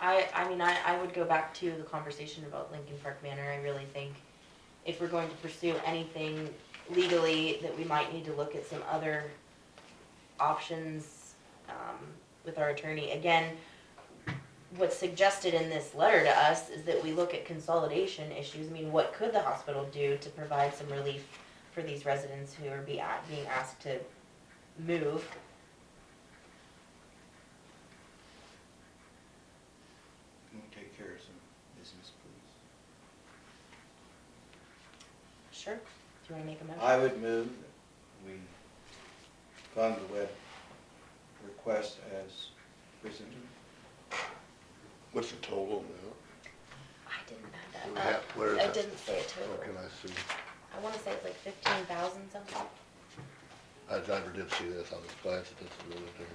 I, I mean, I, I would go back to the conversation about Lincoln Park Manor, I really think if we're going to pursue anything legally, that we might need to look at some other options, um, with our attorney, again, what's suggested in this letter to us is that we look at consolidation issues, I mean, what could the hospital do to provide some relief for these residents who are be, a- being asked to move? Can we take care of some business, please? Sure, do you wanna make a motion? I would move that we fund the web request as presented. What's the total now? I didn't Do add we that have- up. where is I that? didn't say Uh, it Oh, total. can I see? I wanna say it's like fifteen thousand something. I never did see this, I just glanced at this a little bit.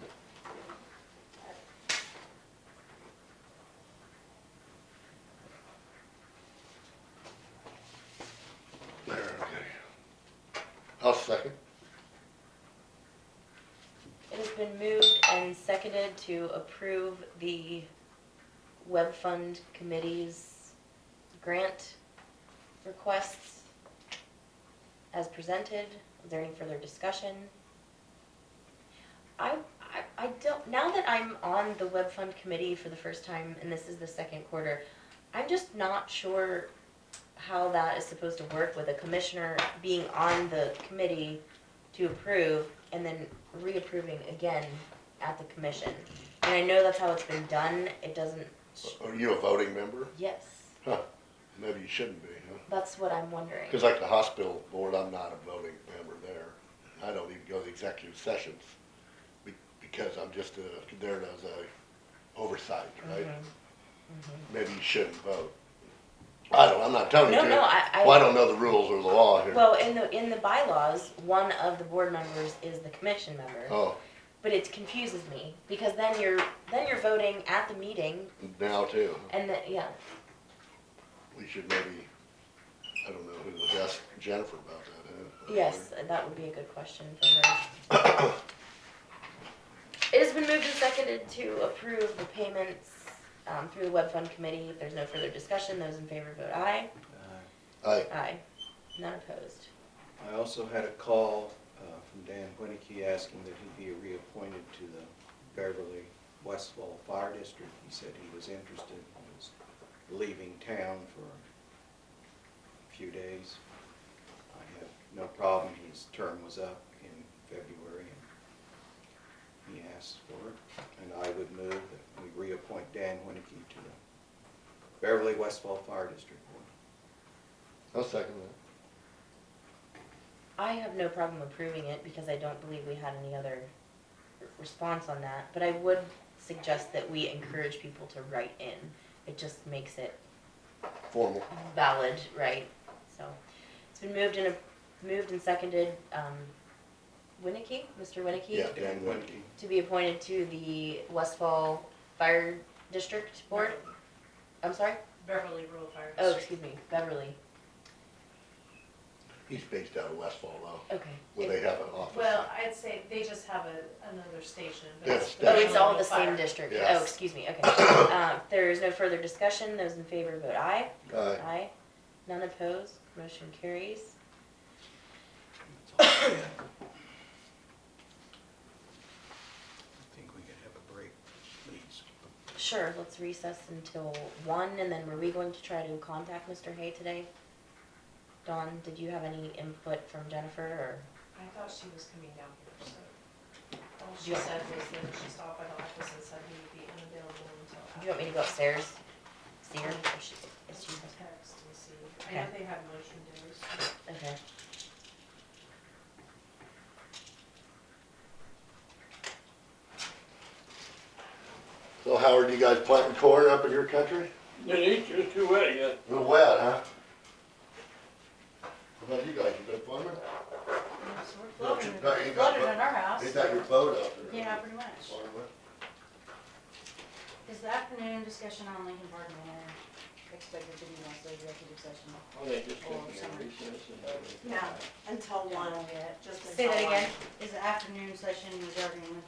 There, okay. I'll second. It has been moved and seconded to approve the web fund committee's grant requests as presented. Is there any further discussion? I, I, I don't, now that I'm on the web fund committee for the first time, and this is the second quarter, I'm just not sure how that is supposed to work with a commissioner being on the committee to approve and then reapproving again at the commission. And I know that's how it's been done, it doesn't, Are you a voting member? yes, Huh, maybe you shouldn't be, huh? that's what I'm wondering. Cause like the hospital board, I'm not a voting member there. I don't even go to the executive sessions be- because I'm just a, there as a oversight, right? Mhm. Maybe you shouldn't vote. I don't, I'm not telling you No, to. no, I- I- Well, I don't know the rules or the law here. Well, in the, in the bylaws, one of the board members is the commission member, Oh, but it confuses me, because then you're, then you're voting at the meeting, now too. and then, yeah, We should maybe, I don't know who, to ask Jennifer about that, huh? yes, that would be a good question for her. It has been moved and seconded to approve the payments, um, through the web fund committee, if there's no further discussion, those in favor vote aye. Uh, I, Aye. None opposed. I also had a call uh, from Dan Winnicky asking that he be reappointed to the Beverly Westfall Fire District. He said he was interested, and was leaving town for a few days. I have no problem, his term was up in February, and he asked for it. And I would move that we reappoint Dan Winnicky to the Beverly Westfall Fire District Board. I'll second I have no problem approving it because I don't believe we had any other r- response on that, but I would suggest that we encourage people to write in. It just makes it that, formal. valid, right? So, it's been moved and, a- moved and seconded, um, Winnicky, Mr. Winnicky? Yeah. Dan Winnicky. To be appointed to the Westfall Fire District Board? I'm sorry? Beverly Rural Fire Oh, District. excuse me, Beverly, He's based out of Westfall though, okay. where they have an office. Well, I'd say they just have a, another station, but Yeah, it's. station. Oh, it's Beverly all Rural the same Fire. district. Yes. Oh, excuse me, okay. Uh, There's no further discussion. Those in favor vote aye. Aye. Aye. None opposed. Motion carries. That's all I had. I think we could have a break, please. Sure, let's recess until one, and then were we going to try to contact Mr. Hay today? Dawn, did you have any input from Jennifer, or? I thought she was coming down here, so. All she said was that she stopped by the office and said he would be unavailable until Do after. you want me to go upstairs? See her? If she, if she, Text and see. I know Okay. they have motion days. okay. So Howard, you guys planting corn up in your country? It ain't just too wet yet. A little wet, huh? How about you guys, you been farming? So we're flooded, you got- you got flooded bu- at our house. Ain't that your boat out there? Yeah, pretty much. Farming? Is the afternoon discussion on Lincoln Park Manor expected to be mostly executive session? Well, they just took me a recess and having. No, until one, just Say that until one. again. Is the afternoon session regarding Lincoln